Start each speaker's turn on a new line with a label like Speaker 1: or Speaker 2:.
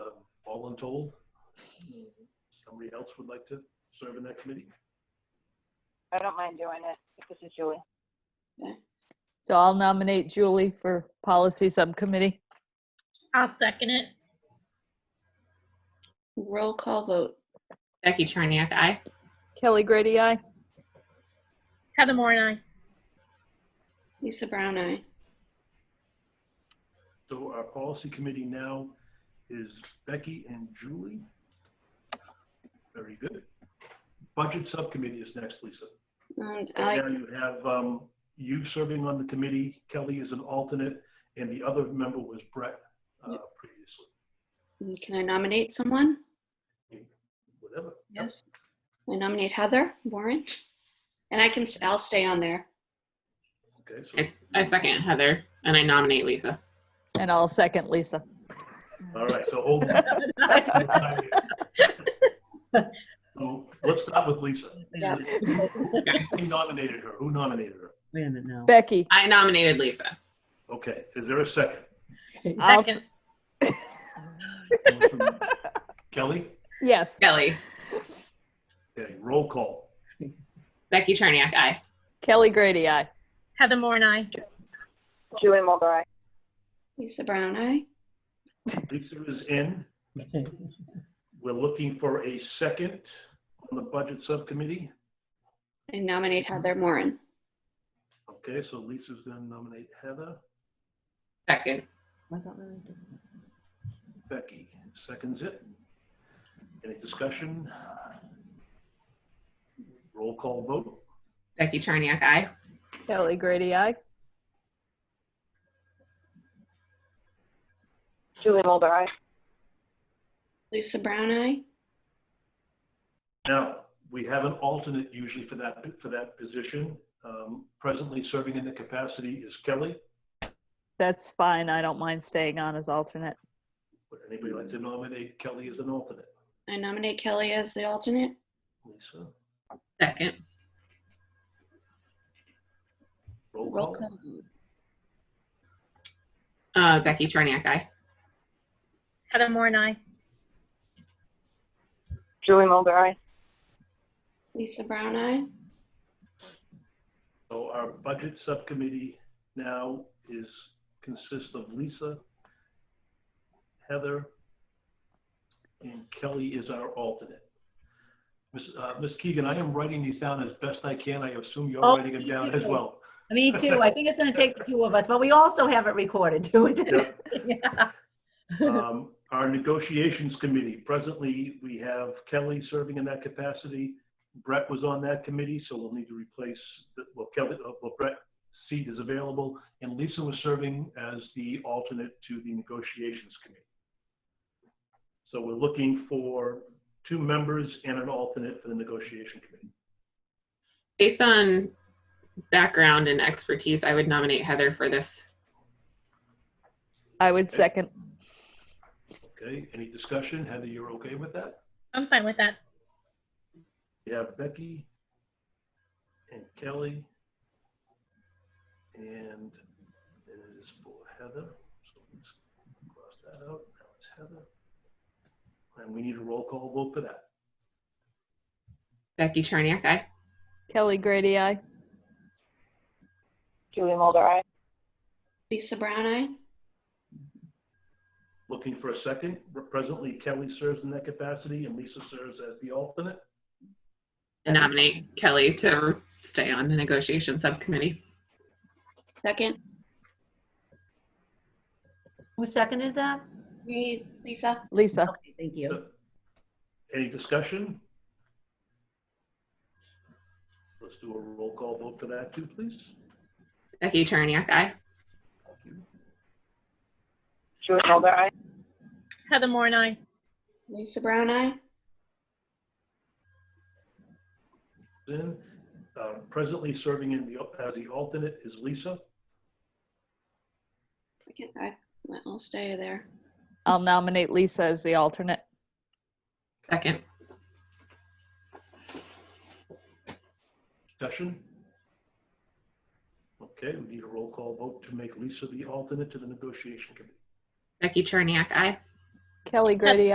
Speaker 1: all untold. Somebody else would like to serve in that committee?
Speaker 2: I don't mind doing it if this is Julie.
Speaker 3: So I'll nominate Julie for Policy Subcommittee.
Speaker 4: I'll second it.
Speaker 5: Roll call vote.
Speaker 6: Becky Charniak, aye.
Speaker 3: Kelly Grady, aye.
Speaker 4: Heather Moore and I.
Speaker 5: Lisa Brown, aye.
Speaker 1: So our policy committee now is Becky and Julie. Very good. Budget subcommittee is next, Lisa.
Speaker 5: And
Speaker 1: Right
Speaker 5: I,
Speaker 1: now you have um, you serving on the committee, Kelly is an alternate, and the other member was Brett uh, previously.
Speaker 5: can I nominate someone?
Speaker 1: Whatever.
Speaker 5: Yes. I nominate Heather Warren. And I can, s- I'll stay on there.
Speaker 1: Okay, so.
Speaker 6: I, I second Heather and I nominate Lisa.
Speaker 3: And I'll second Lisa.
Speaker 1: All right, so hold. So let's start with Lisa.
Speaker 5: Yeah.
Speaker 1: Who nominated her? Who nominated her?
Speaker 7: Wait a minute now.
Speaker 3: Becky.
Speaker 6: I nominated Lisa.
Speaker 1: Okay, is there a second?
Speaker 3: I'll s-
Speaker 4: Second.
Speaker 1: Kelly?
Speaker 3: Yes.
Speaker 6: Kelly,
Speaker 1: Okay, roll call.
Speaker 6: Becky Charniak, aye.
Speaker 3: Kelly Grady, aye.
Speaker 4: Heather Moore and I.
Speaker 2: Julie Mulder, aye.
Speaker 5: Lisa Brown, aye.
Speaker 1: Lisa is in. We're looking for a second on the budget subcommittee.
Speaker 5: I nominate Heather Moran.
Speaker 1: Okay, so Lisa's gonna nominate Heather.
Speaker 6: Second.
Speaker 1: Becky seconds it. Any discussion? Roll call vote.
Speaker 6: Becky Charniak, aye.
Speaker 3: Kelly Grady, aye.
Speaker 2: Julie Mulder, aye.
Speaker 5: Lisa Brown, aye.
Speaker 1: Now, we have an alternate usually for that, for that position. Um, Presently serving in the capacity is Kelly.
Speaker 3: That's fine. I don't mind staying on as alternate.
Speaker 1: Would anybody like to nominate Kelly as an alternate?
Speaker 5: I nominate Kelly as the alternate.
Speaker 1: Lisa,
Speaker 6: Second.
Speaker 1: roll
Speaker 5: Roll
Speaker 1: call.
Speaker 5: call vote.
Speaker 6: Uh, Becky Charniak, aye.
Speaker 4: Heather Moore and I.
Speaker 2: Julie Mulder, aye.
Speaker 5: Lisa Brown, aye.
Speaker 1: So our budget subcommittee now is, consists of Lisa, Heather, and Kelly is our alternate. Ms. uh, Ms. Keegan, I am writing these down as best I can. I assume you're
Speaker 8: Oh,
Speaker 1: writing them
Speaker 8: me
Speaker 1: down
Speaker 8: too.
Speaker 1: as well.
Speaker 8: Me too. I think it's going to take the two of us, but we also have it recorded too. Yeah.
Speaker 1: Um, Our negotiations committee, presently, we have Kelly serving in that capacity. Brett was on that committee, so we'll need to replace, the- well, Kelly, uh, well, Brett's seat is available. And Lisa was serving as the alternate to the negotiations committee. So we're looking for two members and an alternate for the negotiation committee.
Speaker 6: Based on background and expertise, I would nominate Heather for this.
Speaker 3: I would second.
Speaker 1: Okay, any discussion? Heather, you're okay with that?
Speaker 4: I'm fine with that.
Speaker 1: We have Becky and Kelly. And it is for Heather. So let's cross that out. Now it's Heather. And we need a roll call vote for that.
Speaker 6: Becky Charniak, aye.
Speaker 3: Kelly Grady, aye.
Speaker 2: Julie Mulder, aye.
Speaker 5: Lisa Brown, aye.
Speaker 1: Looking for a second. Presently Kelly serves in that capacity and Lisa serves as the alternate.
Speaker 6: Nominate Kelly to stay on the negotiation subcommittee.
Speaker 5: Second,
Speaker 8: Who seconded that?
Speaker 5: me, Lisa.
Speaker 3: Lisa.
Speaker 8: Okay, Thank you.
Speaker 1: Any discussion? Let's do a roll call vote for that too, please.
Speaker 6: Becky Charniak, aye.
Speaker 2: Julie Mulder, aye.
Speaker 4: Heather Moore and I.
Speaker 5: Lisa Brown, aye.
Speaker 1: Then, uh, presently serving in the, as the alternate is Lisa.
Speaker 5: I can, I, I'll stay there.
Speaker 3: I'll nominate Lisa as the alternate.
Speaker 6: Second.
Speaker 1: Discussion? Okay, we need a roll call vote to make Lisa the alternate to the negotiation committee.
Speaker 6: Becky Charniak, aye.
Speaker 3: Kelly Grady,